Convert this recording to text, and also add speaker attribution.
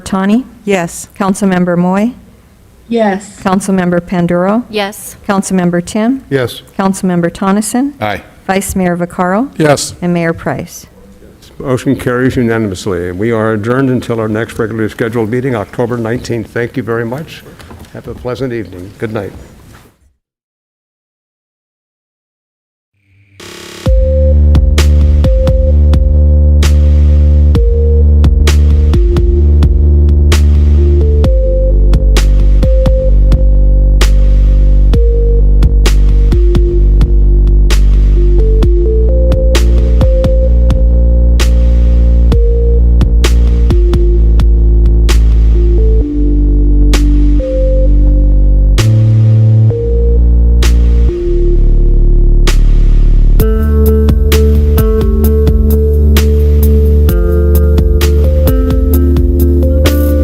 Speaker 1: Catani?
Speaker 2: Yes.
Speaker 1: Councilmember Moy?
Speaker 3: yes,
Speaker 1: Councilmember Panduro?
Speaker 4: yes,
Speaker 1: Councilmember Tim?
Speaker 5: Yes.
Speaker 1: Councilmember Coniston?
Speaker 6: Aye.
Speaker 1: Vice Mayor Vaccaro?
Speaker 5: Yes.
Speaker 1: And Mayor Price.
Speaker 5: Motion carries unanimously. We are adjourned until our next regularly scheduled meeting, October 19th. Thank you very much. Have a pleasant evening. Good night.